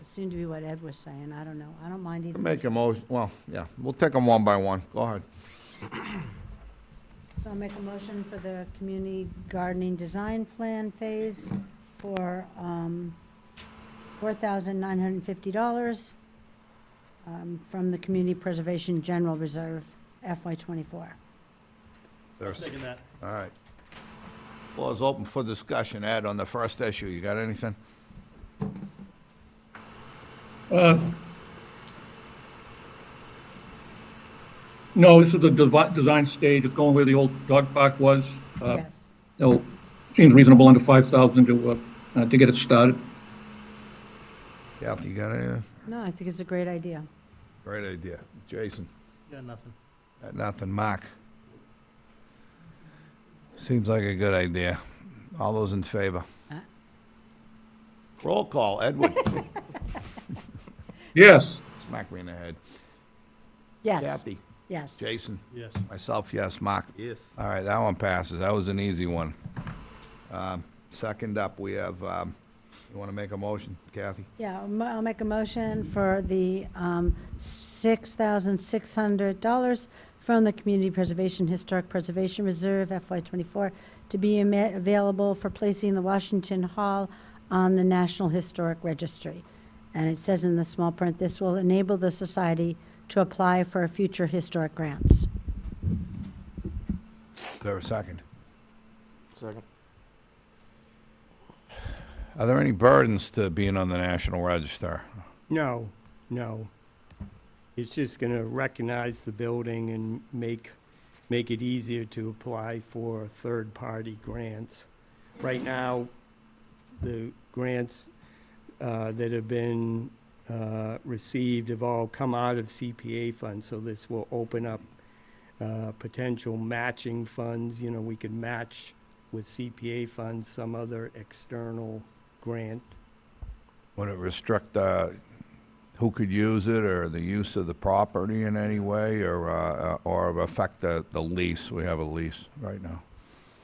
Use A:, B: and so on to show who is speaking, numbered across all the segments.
A: seemed to be what Ed was saying. I don't know. I don't mind either.
B: Make a motion, well, yeah, we'll take them one by one. Go ahead.
A: So I'll make a motion for the community gardening design plan phase for um, $4,950 um, from the Community Preservation General Reserve FY24.
B: There's-
C: Second that.
B: All right. Floor's open for discussion. Ed, on the first issue, you got anything?
D: Uh, No, this is the devi- design stage, it's going where the old dog park was. Uh,
A: Yes.
D: It'll, seems reasonable under 5,000 to, uh, uh, to get it started.
B: Kathy, you got anything?
A: No, I think it's a great idea.
B: Great idea. Jason?
C: Got nothing.
B: Got Nothing. Mark? Seems like a good idea. All those in favor?
A: Huh?
B: Roll call. Edward?
D: Yes,
B: Smack me in the head.
A: Yes,
B: Kathy?
A: yes.
B: Jason?
C: Yes.
B: Myself, yes. Mark?
C: Yes.
B: All right, that one passes. That was an easy one. Um, Second up, we have, um, you want to make a motion, Kathy?
A: Yeah, I'll mo- I'll make a motion for the um, $6,600 from the Community Preservation Historic Preservation Reserve FY24 to be ama- available for placing the Washington Hall on the National Historic Registry. And it says in the small print, this will enable the society to apply for future historic grants.
B: Is there a second?
C: Second.
B: Are there any burdens to being on the National Register?
E: No, no. It's just going to recognize the building and make, make it easier to apply for third-party grants. Right now, the grants uh, that have been uh, received have all come out of CPA funds, so this will open up uh, potential matching funds. You know, we could match with CPA funds some other external grant
B: Would it restrict uh, who could use it, or the use of the property in any way, or, uh, or affect the the lease? We have a lease right now.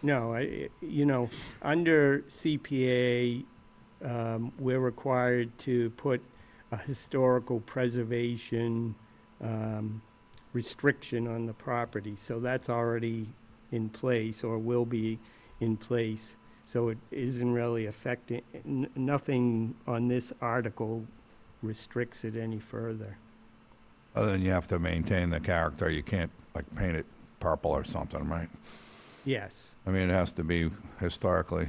E: No, I- I, you know, under CPA, um, we're required to put a historical preservation, um, restriction on the property. So that's already in place or will be in place. So it isn't really affecting, n- nothing on this article restricts it any further.
B: Other than you have to maintain the character, you can't, like, paint it purple or something, right?
E: Yes.
B: I mean, it has to be historically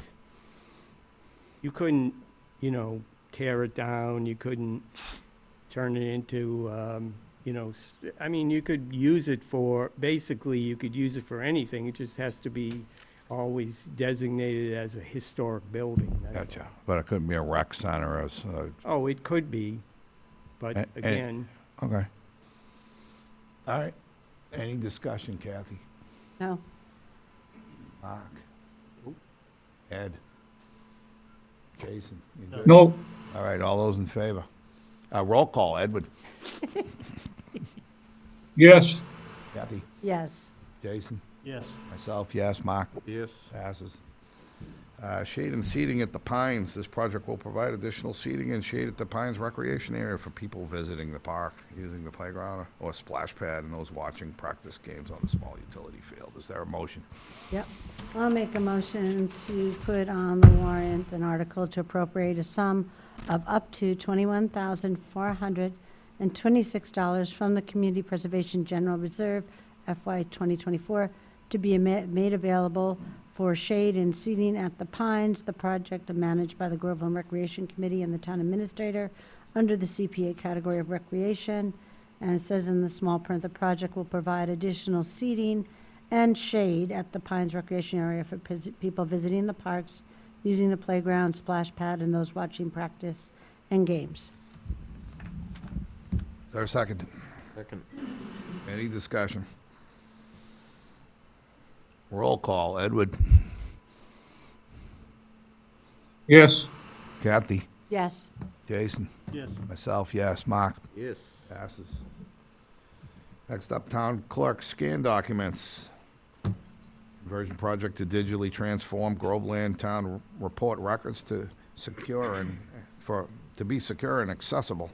E: you couldn't, you know, tear it down, you couldn't turn it into, um, you know, s- I mean, you could use it for, basically, you could use it for anything, it just has to be always designated as a historic building. that's all.
B: Gotcha. But it couldn't be a rec center as, uh,
E: Oh, it could be,
B: A-
E: but
B: and-
E: again,
B: okay. All right. Any discussion, Kathy?
A: No?
B: Mark? Ed? Jason? you good?
D: no,
B: All right, all those in favor? Uh, roll call, Edward.
D: yes,
B: Kathy?
A: Yes.
B: Jason?
C: Yes.
B: Myself, yes. Mark?
C: Yes.
B: Passes. Uh, Shade and seating at the Pines. This project will provide additional seating and shade at the Pines recreation area for people visiting the park, using the playground or splash pad, and those watching practice games on the small utility field. Is there a motion?
A: Yep. I'll make a motion to put on the warrant an article to appropriate a sum of up to $21,426 from the Community Preservation General Reserve FY 2024 to be ama- made available for shade and seating at the Pines, the project managed by the Groveland Recreation Committee and the town administrator under the CPA category of recreation. And it says in the small print, the project will provide additional seating and shade at the Pines Recreation Area for pis- people visiting the parks, using the playground, splash pad, and those watching practice and games.
B: Is there a second?
C: Second.
B: Any discussion? Roll call, Edward.
D: yes,
B: Kathy.
A: Yes.
B: Jason.
C: Yes.
B: Myself, yes. Mark.
C: Yes.
B: Passes. Next up, town clerk scan documents. Conversion project to digitally transform Groveland Town Report records to secure and for, to be secure and accessible.